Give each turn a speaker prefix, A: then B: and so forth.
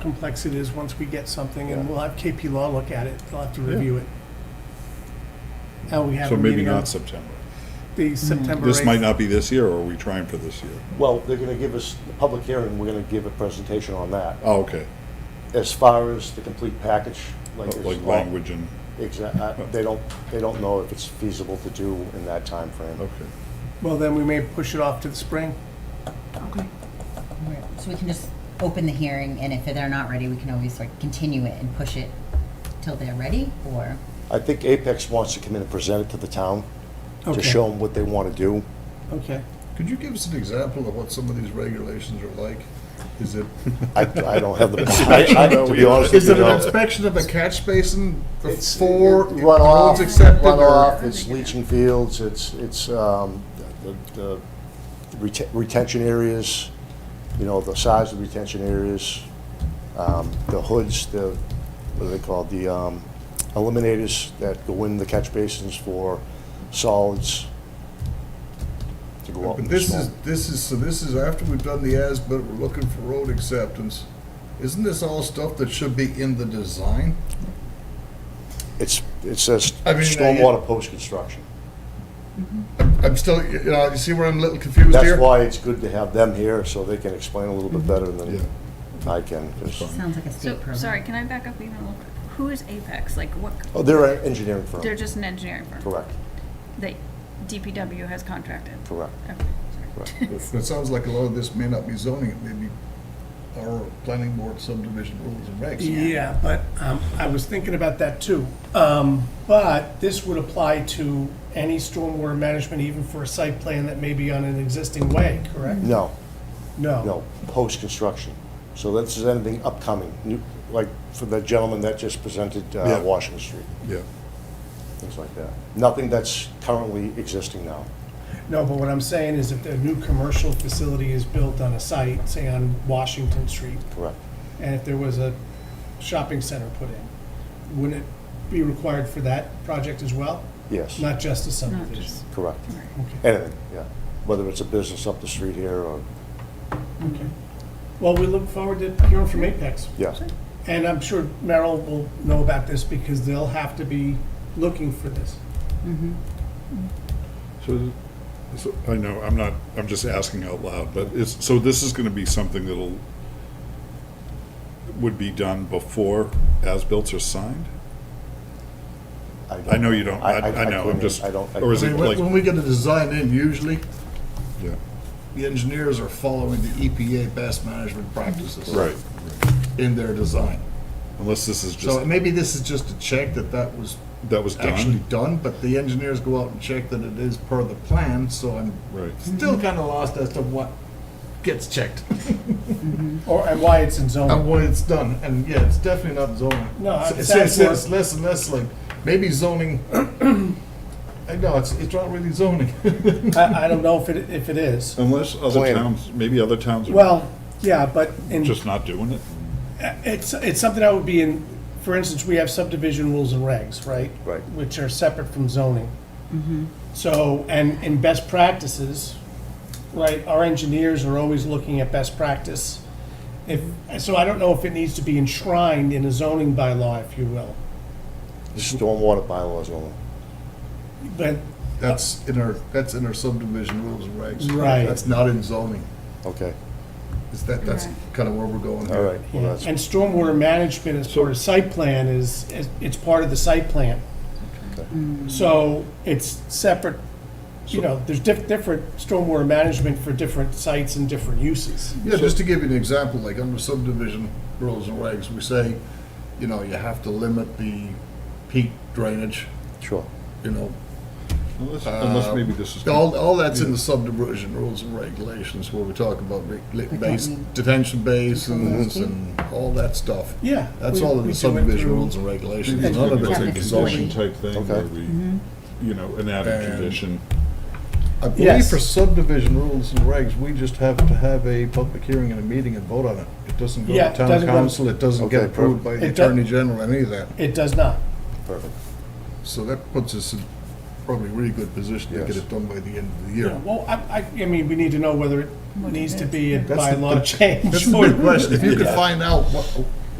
A: complex it is once we get something, and
B: Yeah.
A: we'll have KP Law look at it, they'll have to
B: Yeah.
A: review it. Now we have
C: So
A: a
C: maybe
A: meeting on
C: not September.
A: the September
C: This might
A: 8th.
C: not be this year, or are we trying for this year?
B: Well, they're gonna give us, the public hearing, we're gonna give a presentation on that.
C: Oh, okay,
B: As far as the complete package, like. it's
C: like
B: all-
C: language and,
B: Exact, I- they don't, they don't know if it's feasible to do in that timeframe.
C: okay.
A: Well, then we may push it off to the spring.
D: Okay.
E: So we can just open the hearing, and if they're not ready, we can always like continue it and push it till they're ready, or?
B: I think Apex wants to come in and present it to the town,
A: Okay.
B: to show them what they wanna do.
A: Okay.
F: Could you give us an example of what some of these regulations are like? Is it,
B: I, I don't have the, I- I- to be honest with
F: is
B: Oh, you,
F: it an
B: no.
F: inspection of the catch basin
B: It's
F: before
B: it-
F: roads accepted?
B: Runoff,
F: or-
B: it's leaching fields, it's, it's, um, the, the rete- retention areas, you know, the size of retention areas, um, the hoods, the, what are they called, the, um, eliminators that go in the catch basins for solids to go out
F: But
B: in the
F: this is,
B: storm.
F: this is, so this is after we've done the as, but we're looking for road acceptance. Isn't this all stuff that should be in the design?
B: It's, it says
F: I mean, uh,
B: stormwater post-construction.
F: I'm I'm still, you know, you see where I'm a little confused here?
B: That's why it's good to have them here, so they can explain a little bit
F: Mm-hmm.
B: better
C: Yeah.
B: than I can. 'cause-
E: Sounds like a state
D: So,
E: program.
D: sorry, can I back up even a little? quick? Who is Apex? Like, what,
B: Oh, they're an engineering firm.
D: they're just an engineering firm?
B: Correct,
D: That DPW has contracted?
B: correct.
D: Okay, sorry.
F: It sounds like a lot of this may not be zoning, it may be our planning board subdivision rules and regs.
A: Yeah, but um, I was thinking about that too. Um, But this would apply to any stormwater management, even for a site plan that may be on an existing way, correct?
B: No,
A: No.
B: no, post-construction. So this is anything upcoming, new, like for the gentleman that just presented, uh,
C: Yeah.
B: Washington Street,
C: Yeah,
B: things like that. Nothing that's currently existing now.
A: No, but what I'm saying is if a new commercial facility is built on a site, say on Washington Street,
B: Correct.
A: and if there was a shopping center put in, wouldn't it be required for that project as well?
B: Yes,
A: Not just a
D: Not
A: subdivision?
D: just-
B: correct.
A: Okay.
B: Anything, yeah. Whether it's a business up the street here or,
A: Okay. Well, we look forward to hearing from Apex.
B: yeah,
A: And I'm sure Merrill will know about this because they'll have to be looking for this.
C: so, so, I know, I'm not, I'm just asking out loud, but it's, so this is gonna be something that'll, would be done before as-bills are signed?
B: don't
C: I know you don't, I, I know, I'm
B: couldn't-
C: just,
B: I don't. I
C: or is
F: I
C: it
F: mean, when-
C: like,
F: when we get a design in, usually,
C: yeah,
F: the engineers are following the EPA best management practices.
C: right,
F: In their design.
C: unless this is
F: So
C: just,
F: maybe this is just a check that that was
C: that was
F: actually
C: done?
F: done, but the engineers go out and check that it is per the plan, so I'm
C: Right,
F: still kind of lost as to what gets checked
A: Or, and why it's in zoning.
F: and when it's done. And yeah, it's definitely not zoning.
A: No,
F: It's-
A: it
F: it's,
A: sounds
F: it's,
A: more-
F: it's less and less like maybe zoning. I know it's it's not really zoning.
A: I, I don't know if it, if it is.
C: unless other
B: Plan.
C: towns, maybe other towns are
A: Well, yeah, but in,
C: just not doing it?
A: it's, it's something that would be in, for instance, we have subdivision rules and regs, right?
B: Right.
A: Which are separate from zoning. So, and in best practices, right, our engineers are always looking at best practice. If, so I don't know if it needs to be enshrined in a zoning bylaw, if you will,
B: Stormwater bylaws only.
A: but
F: That's in our that's in our subdivision rules and regs.
A: Right.
F: That's not in zoning.
B: Okay,
F: Is that that's
D: Right.
F: kind of where we're going.
B: all
F: here.
B: right. well,
A: Yeah,
B: that's-
A: And stormwater management as part of site plan is, is- it's part of the site plan.
D: Mm.
A: So it's separate, you know, there's diff, different stormwater management for different sites and different uses.
F: Yeah, just to give you an example, like under subdivision rules and regs, we say, you know, you have to limit the peak drainage,
B: Sure.
F: you know.
C: Unless, unless maybe this is.
F: All, all that's in the subdivision rules and regulations where we talk about re- li-
E: But
F: base,
E: don't we-
F: detention basins and all that stuff.
A: Yeah.
F: That's
A: we-
F: all in
A: we
F: the
A: do it
F: subdivision
A: through-
F: rules and regulations.
C: Maybe it's
F: None of
C: like
F: it's
C: a
F: in
E: Yeah.
F: the
C: condition
F: zoning.
C: type thing where we, you know, an added
F: And-
C: condition.
F: I believe
A: Yes.
F: for subdivision rules and regs, we just have to have a public hearing and a meeting and vote on it. It doesn't go
A: Yeah,
F: to
A: it
F: town
A: doesn't go-
F: council, it doesn't get
B: Okay,
F: approved by
A: It
F: the
A: do-
F: attorney general, any of that.
A: It does not.
B: Perfect.
F: So that puts us in probably a really good position to get
B: Yes.
F: it done by the end of the
A: Yeah,
F: year.
A: well, I, I, I mean, we need to know whether it
D: What it
A: needs to
D: is.
A: be a
F: That's
A: by
F: the-
A: law change.
F: That's a good question. If you could find out what,